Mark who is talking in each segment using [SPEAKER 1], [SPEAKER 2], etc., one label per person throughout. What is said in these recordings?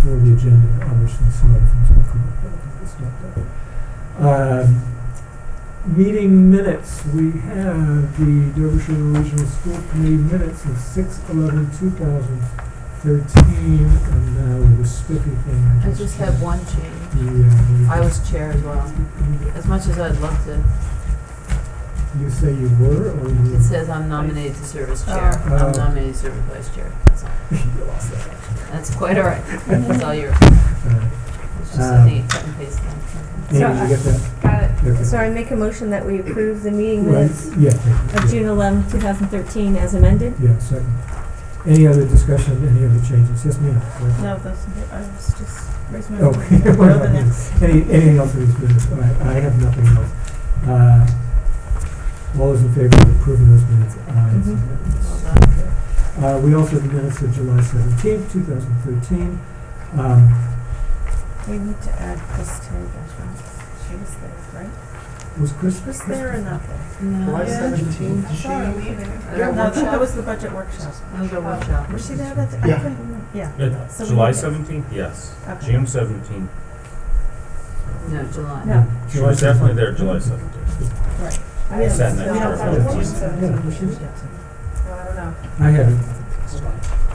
[SPEAKER 1] for the agenda, obviously some other things will come up, but I think it's not that. Um, Meeting minutes, we have the Derbyshire Regional School Committee minutes of six eleven two thousand thirteen, and now with the spiffy thing, I uh,
[SPEAKER 2] I
[SPEAKER 1] just.
[SPEAKER 2] just have one change.
[SPEAKER 1] Yeah.
[SPEAKER 2] I was chair as well. As much as I'd love to,
[SPEAKER 1] You say you were, or you?
[SPEAKER 2] it says I'm nominated to serve as chair.
[SPEAKER 1] Oh.
[SPEAKER 2] I'm nominated to serve as vice chair. That's all.
[SPEAKER 1] You lost that.
[SPEAKER 2] That's quite all right.
[SPEAKER 3] Uh,
[SPEAKER 2] That's all your,
[SPEAKER 1] Alright,
[SPEAKER 2] it's just
[SPEAKER 1] Um,
[SPEAKER 2] a neat cut and paste thing.
[SPEAKER 1] Amy,
[SPEAKER 3] So, uh,
[SPEAKER 1] you get that?
[SPEAKER 3] Got it.
[SPEAKER 1] Okay.
[SPEAKER 3] So I make a motion that we approve the meeting
[SPEAKER 1] Right,
[SPEAKER 3] minutes
[SPEAKER 1] yeah.
[SPEAKER 3] of June 11, 2013 as amended.
[SPEAKER 1] Yeah, second. Any other discussion, any other changes? Yes, ma'am?
[SPEAKER 4] No, that's, I was just raising my
[SPEAKER 1] Oh,
[SPEAKER 4] hand.
[SPEAKER 1] we're
[SPEAKER 4] Well,
[SPEAKER 1] not
[SPEAKER 4] the
[SPEAKER 1] doing-
[SPEAKER 4] next.
[SPEAKER 1] Any, anything else for this business? All right, I have nothing else. Uh, all those in favor of approving those minutes? Aye, it's
[SPEAKER 3] Mhm.
[SPEAKER 1] unanimous.
[SPEAKER 4] Mm-hmm.
[SPEAKER 2] Well done.
[SPEAKER 1] Uh, we also have the minutes of July seventeenth, two thousand thirteen. Um,
[SPEAKER 4] We need to add this to the restaurant. She was there, right?
[SPEAKER 1] was Chris?
[SPEAKER 4] Was there or not there?
[SPEAKER 2] No,
[SPEAKER 4] July
[SPEAKER 2] yeah.
[SPEAKER 4] 17th,
[SPEAKER 2] I saw her leaving. At our
[SPEAKER 4] No, that- that
[SPEAKER 2] workshop.
[SPEAKER 4] was the budget workshop.
[SPEAKER 2] That was our workshop.
[SPEAKER 4] Was she there that day?
[SPEAKER 5] Yeah.
[SPEAKER 4] Yeah.
[SPEAKER 6] Uh,
[SPEAKER 4] So we
[SPEAKER 6] July
[SPEAKER 4] need it.
[SPEAKER 6] seventeenth, yes.
[SPEAKER 4] Okay.
[SPEAKER 6] June seventeenth.
[SPEAKER 2] No, July.
[SPEAKER 4] No.
[SPEAKER 6] She was definitely there July seventeenth.
[SPEAKER 4] We don't-
[SPEAKER 6] Sat next
[SPEAKER 4] we
[SPEAKER 6] to
[SPEAKER 4] don't
[SPEAKER 6] her.
[SPEAKER 4] follow
[SPEAKER 6] Yeah.
[SPEAKER 4] June
[SPEAKER 1] Yeah, we
[SPEAKER 4] 17th.
[SPEAKER 1] should.
[SPEAKER 4] Well, I don't know.
[SPEAKER 1] I have it.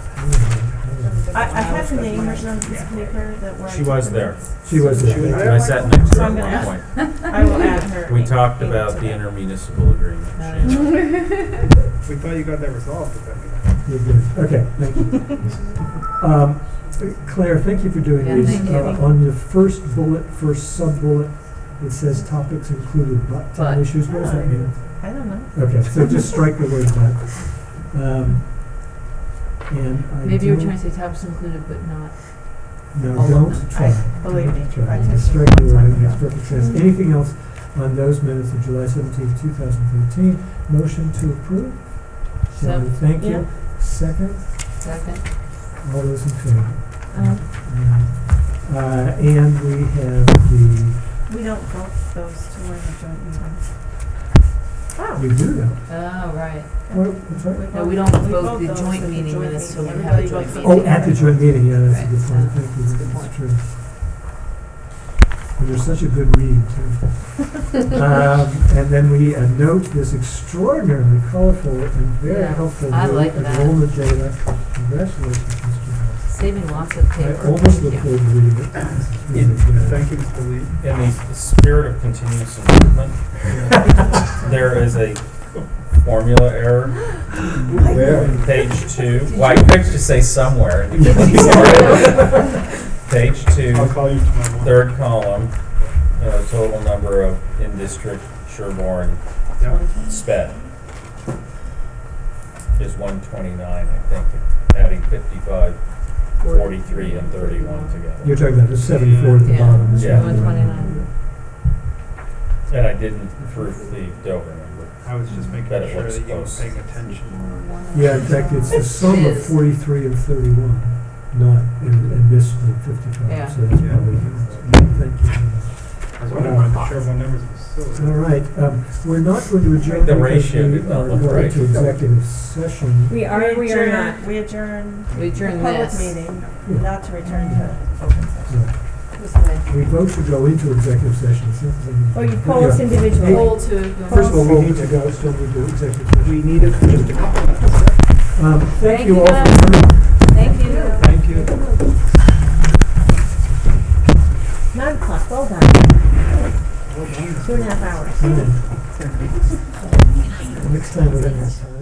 [SPEAKER 4] I, I have the name written on this paper that were.
[SPEAKER 6] She was there.
[SPEAKER 1] She was there.
[SPEAKER 6] I sat next to her
[SPEAKER 4] So I'm gonna
[SPEAKER 6] at
[SPEAKER 4] ask-
[SPEAKER 6] one
[SPEAKER 4] I will add her.
[SPEAKER 6] point. We
[SPEAKER 4] in-
[SPEAKER 6] talked
[SPEAKER 4] into
[SPEAKER 6] about the
[SPEAKER 4] that.
[SPEAKER 6] intermunicipal agreement. Shane.
[SPEAKER 5] We thought you got that resolved, but then we
[SPEAKER 1] You're good. Okay, thank you. Um, Claire, thank you for doing
[SPEAKER 2] Yeah,
[SPEAKER 1] these.
[SPEAKER 2] thank you.
[SPEAKER 1] Uh, On your first bullet, first sub-bullet, it says topics included but
[SPEAKER 2] But.
[SPEAKER 1] town issues. What does that mean?
[SPEAKER 4] I don't know.
[SPEAKER 1] Okay, so just strike the word but. Um, And I
[SPEAKER 2] Maybe you were
[SPEAKER 1] don't-
[SPEAKER 2] trying to say topics included, but not.
[SPEAKER 1] No,
[SPEAKER 2] Hold on.
[SPEAKER 1] don't try.
[SPEAKER 4] Believe me,
[SPEAKER 1] Try.
[SPEAKER 4] I
[SPEAKER 1] Just
[SPEAKER 4] tested
[SPEAKER 1] Strike the
[SPEAKER 4] one
[SPEAKER 1] word,
[SPEAKER 4] time
[SPEAKER 1] it makes
[SPEAKER 4] ago.
[SPEAKER 1] perfect sense. Anything else on those minutes of July seventeenth, two thousand thirteen? Motion to approve? Shall
[SPEAKER 2] So-
[SPEAKER 1] we? Thank
[SPEAKER 4] yeah.
[SPEAKER 1] you. Second,
[SPEAKER 2] Second.
[SPEAKER 1] all those in favor?
[SPEAKER 4] Um,
[SPEAKER 1] Uh, and we have the,
[SPEAKER 4] We don't vote those to win the joint meeting. Oh.
[SPEAKER 1] we do know.
[SPEAKER 2] Oh, right.
[SPEAKER 1] What, I'm sorry?
[SPEAKER 2] No, we don't vote the
[SPEAKER 4] those
[SPEAKER 2] joint
[SPEAKER 4] at the
[SPEAKER 2] meeting
[SPEAKER 4] joint
[SPEAKER 2] minutes till we
[SPEAKER 4] meeting.
[SPEAKER 2] have a
[SPEAKER 4] Everybody
[SPEAKER 2] joint
[SPEAKER 4] votes
[SPEAKER 1] Oh,
[SPEAKER 2] meeting.
[SPEAKER 1] at the joint meeting, yeah, that's a
[SPEAKER 2] Right,
[SPEAKER 1] good point,
[SPEAKER 2] uh,
[SPEAKER 1] thank you,
[SPEAKER 2] that's a good
[SPEAKER 1] that's
[SPEAKER 2] point.
[SPEAKER 1] true. You're such a good read, too. Um, and then we uh, note this extraordinarily colorful and very
[SPEAKER 2] Yeah,
[SPEAKER 1] helpful
[SPEAKER 2] I
[SPEAKER 1] new
[SPEAKER 2] like that.
[SPEAKER 1] enrollment data. Congratulations, Mr. Hall.
[SPEAKER 2] Saving lots of
[SPEAKER 1] I
[SPEAKER 2] paper.
[SPEAKER 1] almost look
[SPEAKER 2] Thank you.
[SPEAKER 1] forward to reading it. It's really
[SPEAKER 5] did.
[SPEAKER 1] good.
[SPEAKER 5] Thank you, Mr. Lee.
[SPEAKER 6] In the spirit of continuous improvement, there is a formula error.
[SPEAKER 5] Where?
[SPEAKER 6] on Page two. Well, I picked to say somewhere. and you couldn't say it. Page two.
[SPEAKER 5] I'll call you tomorrow morning.
[SPEAKER 6] third column, you know, total number of in-district Sherborne
[SPEAKER 5] Yeah.
[SPEAKER 6] sped is one twenty-nine, I think, adding fifty-five, forty-three, and thirty-one
[SPEAKER 1] You're
[SPEAKER 6] together.
[SPEAKER 1] talking about the seventy-four at the
[SPEAKER 2] Yeah.
[SPEAKER 1] bottom. is
[SPEAKER 6] Yeah.
[SPEAKER 1] what we're-
[SPEAKER 2] 129.
[SPEAKER 6] And I didn't approve the Dover number.
[SPEAKER 5] I was just making
[SPEAKER 6] Bet it
[SPEAKER 5] sure
[SPEAKER 6] looks
[SPEAKER 5] that you were
[SPEAKER 6] close.
[SPEAKER 5] paying attention.
[SPEAKER 1] Yeah, in fact, it's the sum
[SPEAKER 2] It
[SPEAKER 1] of
[SPEAKER 2] is.
[SPEAKER 1] forty-three and thirty-one, not, and, and this one
[SPEAKER 2] Yeah.
[SPEAKER 1] fifty-five, so that's
[SPEAKER 5] Yeah.
[SPEAKER 1] probably, thank you.
[SPEAKER 5] I was wondering why the Sherwell numbers were so.
[SPEAKER 1] All right, um, we're not going to adjourn
[SPEAKER 6] The
[SPEAKER 1] because
[SPEAKER 6] ratio
[SPEAKER 1] we
[SPEAKER 6] did not
[SPEAKER 1] are
[SPEAKER 6] look
[SPEAKER 1] going
[SPEAKER 6] right.
[SPEAKER 1] to executive session.
[SPEAKER 3] We are, we are not.
[SPEAKER 4] We adjourn
[SPEAKER 2] We
[SPEAKER 4] the
[SPEAKER 2] adjourn
[SPEAKER 4] public
[SPEAKER 2] this.
[SPEAKER 4] meeting, not to return to open session.
[SPEAKER 2] This way.
[SPEAKER 1] We vote to go into executive session, it's not something-
[SPEAKER 2] Oh,
[SPEAKER 3] Or you poll us
[SPEAKER 1] Yeah.
[SPEAKER 3] individually.
[SPEAKER 2] Poll to.
[SPEAKER 1] First of all, we need to go, so we do executive session.
[SPEAKER 5] We need it for just a couple minutes.
[SPEAKER 1] Um, thank
[SPEAKER 2] Thank
[SPEAKER 1] you
[SPEAKER 2] you
[SPEAKER 1] all for
[SPEAKER 2] guys.
[SPEAKER 1] coming.
[SPEAKER 2] Thank you.
[SPEAKER 5] Thank you.
[SPEAKER 3] 9 o'clock, well done. Two and a half hours.
[SPEAKER 1] Next time we're gonna have time.